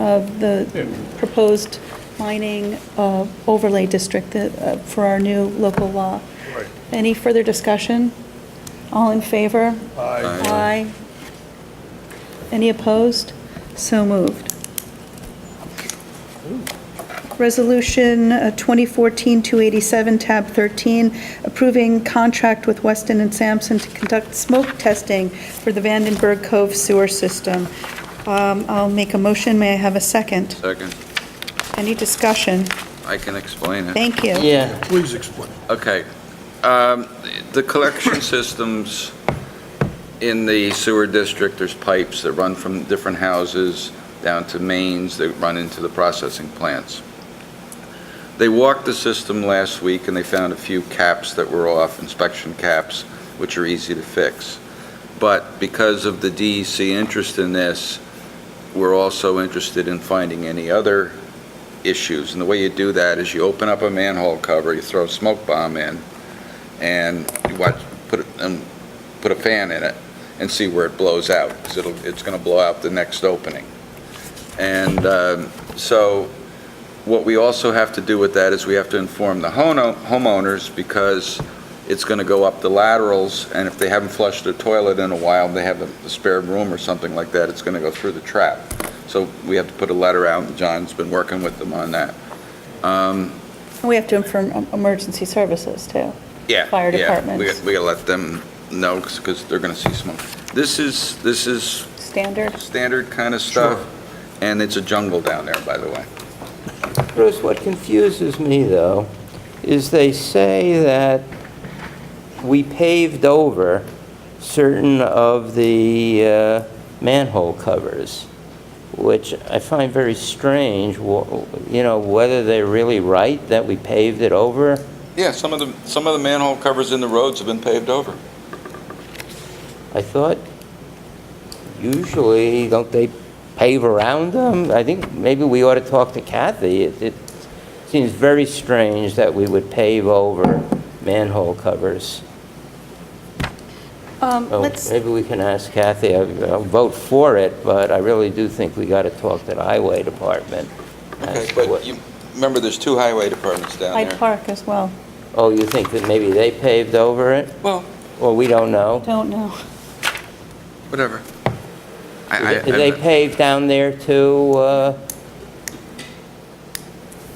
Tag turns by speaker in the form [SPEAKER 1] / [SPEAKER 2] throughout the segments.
[SPEAKER 1] of the proposed mining uh, overlay district that, uh, for our new local law.
[SPEAKER 2] Right.
[SPEAKER 1] Any further discussion? All in favor?
[SPEAKER 2] Aye.
[SPEAKER 1] Aye. Any opposed? So moved. Resolution uh, 2014-287, tab 13, approving contract with Weston and Sampson to conduct smoke testing for the Vandenberg Cove sewer system. Um, I'll make a motion, may I have a second?
[SPEAKER 3] Second,
[SPEAKER 1] Any discussion?
[SPEAKER 3] I can explain it.
[SPEAKER 1] Thank you.
[SPEAKER 4] Yeah,
[SPEAKER 2] Please explain.
[SPEAKER 3] Okay. Um, The collection systems in the sewer district, there's pipes that run from different houses down to mains that run into the processing plants. They walked the system last week, and they found a few caps that were off, inspection caps, which are easy to fix. But because of the DEC interest in this, we're also interested in finding any other issues. And the way you do that is you open up a manhole cover, you throw a smoke bomb in, and you watch, put, it- um, put a fan in it and see where it blows out, because it'll, it's going to blow out the next opening. And um, so what we also have to do with that is we have to inform the hono- homeowners, because it's going to go up the laterals, and if they haven't flushed their toilet in a while, they have a spare room or something like that, it's going to go through the trap. So we have to put a letter out, and John's been working with them on that. Um,
[SPEAKER 1] We have to inform um, emergency services, too.
[SPEAKER 3] Yeah.
[SPEAKER 1] Fire
[SPEAKER 3] yeah,
[SPEAKER 1] departments.
[SPEAKER 3] We, we gotta let them know, because they're gonna see smoke. This is, this is
[SPEAKER 1] Standard?
[SPEAKER 3] standard kind of stuff, and it's a jungle down there, by the way.
[SPEAKER 4] Bruce, what confuses me, though, is they say that we paved over certain of the uh, manhole covers, which I find very strange, wh- you know, whether they're really right that we paved it over.
[SPEAKER 3] Yeah, some of the, some of the manhole covers in the roads have been paved over.
[SPEAKER 4] I thought usually, don't they pave around them? I think maybe we ought to talk to Kathy. It it seems very strange that we would pave over manhole covers.
[SPEAKER 1] Um,
[SPEAKER 4] Oh,
[SPEAKER 1] Let's,
[SPEAKER 4] Maybe we can ask Kathy. I- I'll vote for it, but I really do think we got to talk to the highway department.
[SPEAKER 3] Okay,
[SPEAKER 4] as to
[SPEAKER 3] but
[SPEAKER 4] what-
[SPEAKER 3] you, remember, there's two highway departments down
[SPEAKER 1] Hyde
[SPEAKER 3] there.
[SPEAKER 1] Park as well.
[SPEAKER 4] Oh, you think that maybe they paved over it?
[SPEAKER 3] Well,
[SPEAKER 4] Or we don't know?
[SPEAKER 1] Don't know.
[SPEAKER 3] whatever. I- I-
[SPEAKER 4] Did they pave down there too? uh,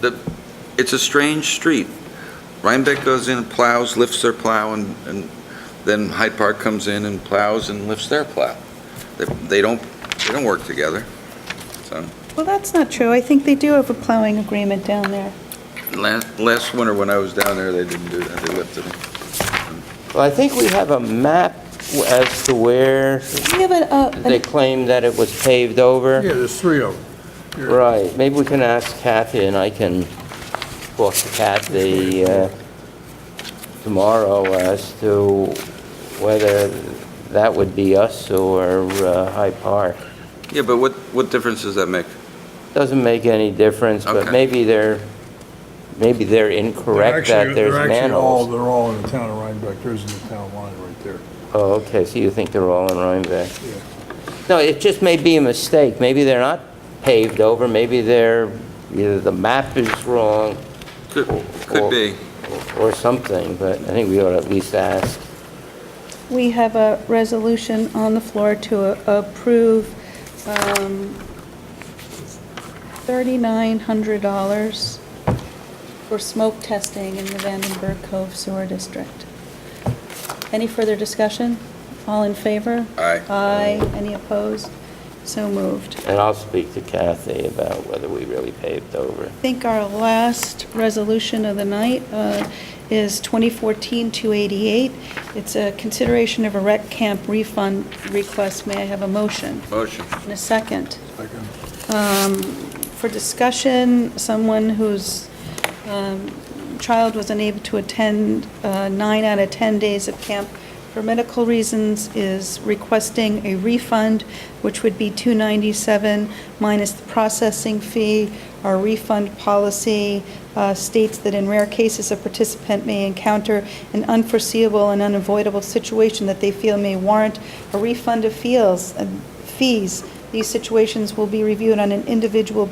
[SPEAKER 3] the- It's a strange street. Rhinebeck goes in, plows, lifts their plow, and, and then Hyde Park comes in and plows and lifts their plow. They, they don't, they don't work together. So,
[SPEAKER 1] Well, that's not true. I think they do have a plowing agreement down there.
[SPEAKER 3] last, last winter when I was down there, they didn't do that, they lifted it.
[SPEAKER 4] Well, I think we have a map as to where
[SPEAKER 1] We have a, uh,
[SPEAKER 4] they
[SPEAKER 1] an-
[SPEAKER 4] claim that it was paved over.
[SPEAKER 2] Yeah, there's three of them.
[SPEAKER 4] Right, maybe we can ask Kathy, and I can talk to Kathy uh, tomorrow as to whether that would be us or uh, Hyde Park.
[SPEAKER 3] Yeah, but what, what difference does that make?
[SPEAKER 4] Doesn't make any difference, but
[SPEAKER 3] Okay.
[SPEAKER 4] maybe they're, maybe they're incorrect that there's
[SPEAKER 2] They're actually all,
[SPEAKER 4] manholes.
[SPEAKER 2] they're all in the town of Rhinebeck, there's in the town line right there.
[SPEAKER 4] Oh, okay, so you think they're all in Rhinebeck?
[SPEAKER 2] Yeah.
[SPEAKER 4] No, it just may be a mistake. Maybe they're not paved over, maybe they're, either the map is wrong
[SPEAKER 3] Could, could be.
[SPEAKER 4] or something, but I think we ought to at least ask.
[SPEAKER 1] we have a resolution on the floor to a- approve um, $3,900 for smoke testing in the Vandenberg Cove Sewer District. Any further discussion? All in favor?
[SPEAKER 3] Aye.
[SPEAKER 1] Aye. Any opposed? So moved.
[SPEAKER 4] And I'll speak to Kathy about whether we really paved over.
[SPEAKER 1] I think our last resolution of the night uh, is 2014-288. It's a consideration of a rec camp refund request. May I have a motion
[SPEAKER 3] Motion.
[SPEAKER 1] and a second?
[SPEAKER 2] Second.
[SPEAKER 1] Um, For discussion, someone whose um, child was unable to attend uh, nine out of 10 days of camp for medical reasons is requesting a refund, which would be 297 minus the processing fee. Our refund policy uh, states that in rare cases, a participant may encounter an unforeseeable and unavoidable situation that they feel may warrant a refund of feels, uh, fees These situations will be reviewed on an individual